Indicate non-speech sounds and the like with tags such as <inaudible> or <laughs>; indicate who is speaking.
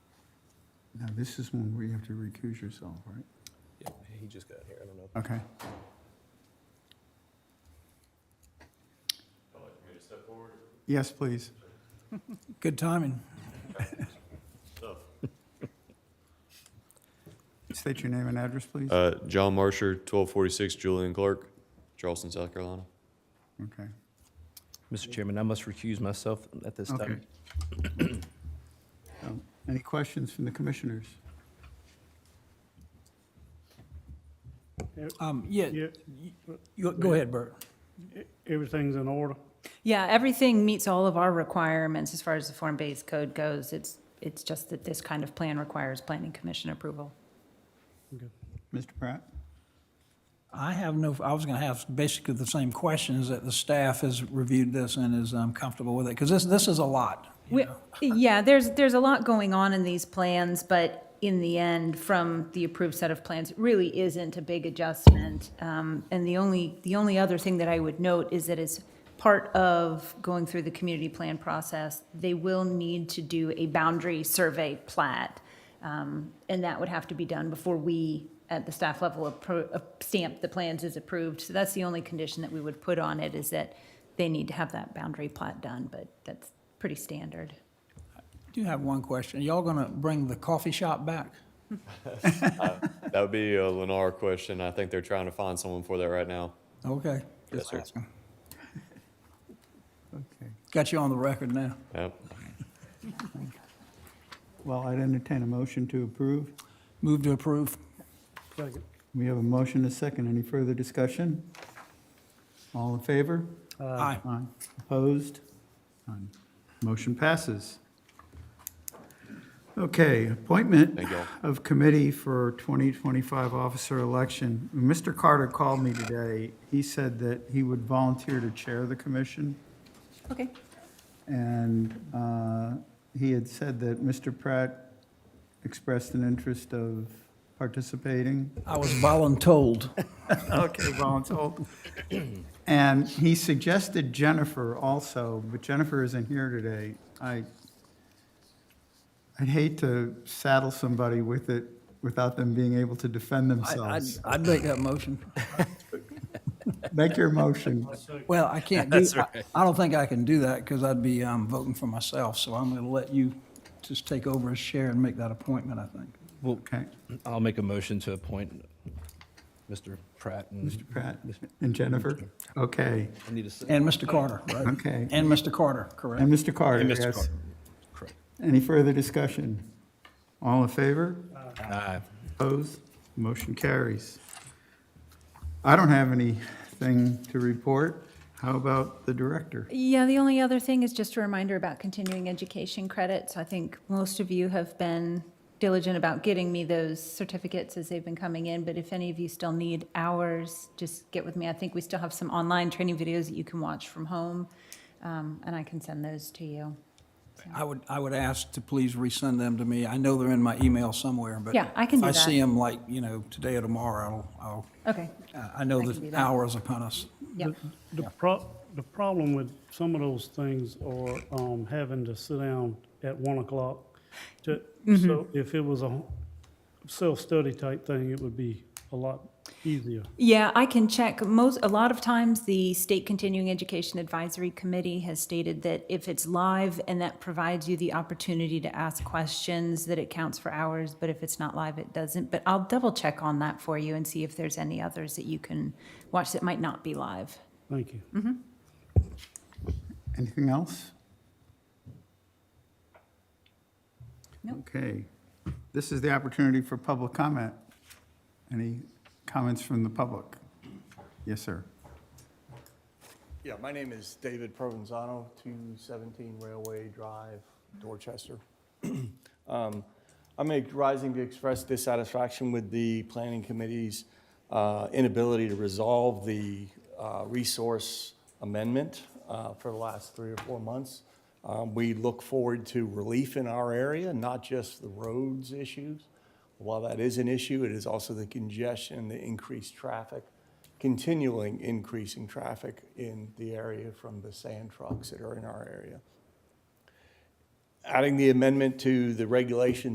Speaker 1: Now, this is one where you have to recuse yourself, right?
Speaker 2: Yeah, he just got here, I don't know.
Speaker 1: Okay. Yes, please.
Speaker 3: Good timing.
Speaker 1: State your name and address, please.
Speaker 4: Uh, John Marsher, 1246 Julian Clark, Charleston, South Carolina.
Speaker 1: Okay.
Speaker 5: Mr. Chairman, I must recuse myself at this
Speaker 1: Okay.
Speaker 5: time.
Speaker 1: Um, Any questions from the commissioners?
Speaker 3: Um, yeah,
Speaker 6: Yeah,
Speaker 3: you- go ahead, Bert.
Speaker 6: everything's in order.
Speaker 7: Yeah, everything meets all of our requirements as far as the form-based code goes. It's, it's just that this kind of plan requires planning commission approval.
Speaker 1: Mr. Pratt?
Speaker 3: I have no, I was gonna have basically the same questions that the staff has reviewed this and is um, comfortable with it, because this, this is a lot. you
Speaker 7: We-
Speaker 3: know. <laughs>
Speaker 7: Yeah, there's, there's a lot going on in these plans, but in the end, from the approved set of plans, it really isn't a big adjustment. Um, And the only, the only other thing that I would note is that as part of going through the community plan process, they will need to do a boundary survey plat. Um, And that would have to be done before we, at the staff level, appro- uh, stamp the plans as approved. So that's the only condition that we would put on it, is that they need to have that boundary plat done, but that's pretty standard.
Speaker 3: I Do have one question. Y'all gonna bring the coffee shop back?
Speaker 4: That would be a Lennar question. I think they're trying to find someone for that right now.
Speaker 3: Okay.
Speaker 4: Yes,
Speaker 3: just
Speaker 4: sir.
Speaker 3: asking.
Speaker 1: Okay.
Speaker 3: Got you on the record now.
Speaker 4: Yep.
Speaker 1: Well, I'd entertain a motion to approve.
Speaker 3: Move to approve.
Speaker 6: Second.
Speaker 1: We have a motion, a second. Any further discussion? All in favor?
Speaker 6: Uh,
Speaker 3: Aye.
Speaker 1: Aye. Opposed? None. Motion passes. Okay, appointment
Speaker 4: Thank y'all.
Speaker 1: of committee for 2025 officer election. Mr. Carter called me today. He said that he would volunteer to chair the commission,
Speaker 7: Okay.
Speaker 1: and uh, he had said that Mr. Pratt expressed an interest of participating.
Speaker 3: I was voluntold.
Speaker 1: Okay, voluntold. And he suggested Jennifer also, but Jennifer isn't here today. I, I'd hate to saddle somebody with it without them being able to defend
Speaker 3: I- I'd,
Speaker 1: themselves.
Speaker 3: I'd make that motion.
Speaker 1: Make your motion.
Speaker 3: Well, I can't do, I- I don't think I can do that, because I'd be um, voting for myself, so I'm gonna let you just take over as chair and make that appointment, I think.
Speaker 5: Well,
Speaker 1: Okay,
Speaker 5: I'll make a motion to appoint Mr. Pratt and
Speaker 1: Mr. Pratt and Jennifer. Okay,
Speaker 5: I need a se-
Speaker 3: And Mr. Carter, right?
Speaker 1: Okay.
Speaker 3: And Mr. Carter, correct?
Speaker 1: and Mr. Carter,
Speaker 5: and Mr.
Speaker 1: yes.
Speaker 5: Carter. Correct.
Speaker 1: Any further discussion? All in favor?
Speaker 5: Aye.
Speaker 1: Opposed? Motion carries. I don't have anything to report. How about the director?
Speaker 7: Yeah, the only other thing is just a reminder about continuing education credits. I think most of you have been diligent about getting me those certificates as they've been coming in, but if any of you still need hours, just get with me. I think we still have some online training videos that you can watch from home, um, and I can send those to you.
Speaker 3: I would, I would ask to please resend them to me. I know they're in my email somewhere, but.
Speaker 7: Yeah, I can do
Speaker 3: If I
Speaker 7: that.
Speaker 3: see them like, you know, today or tomorrow, I'll,
Speaker 7: Okay,
Speaker 3: I'll, I know
Speaker 7: I can do
Speaker 3: the
Speaker 7: that.
Speaker 3: hour is upon us.
Speaker 7: yeah.
Speaker 6: The pro, the problem with some of those things are, um, having to sit down at one o'clock. to- So if it was a self-study type thing, it would be a lot easier.
Speaker 7: Yeah, I can check. Most, a lot of times, the State Continuing Education Advisory Committee has stated that if it's live and that provides you the opportunity to ask questions, that it counts for hours, but if it's not live, it doesn't. But I'll double check on that for you and see if there's any others that you can watch that might not be live.
Speaker 6: Thank you.
Speaker 1: Anything else?
Speaker 7: No.
Speaker 1: Okay. This is the opportunity for public comment. Any comments from the public? Yes, sir.
Speaker 8: Yeah, my name is David Provenzano, 217 Railway Drive, Dorchester. Um, I make rising to express dissatisfaction with the planning committee's uh, inability to resolve the uh, resource amendment uh, for the last three or four months. Um, We look forward to relief in our area, not just the roads issues. While that is an issue, it is also the congestion, the increased traffic, continuing increasing traffic in the area from the sand trucks that are in our area. Adding the amendment to the regulation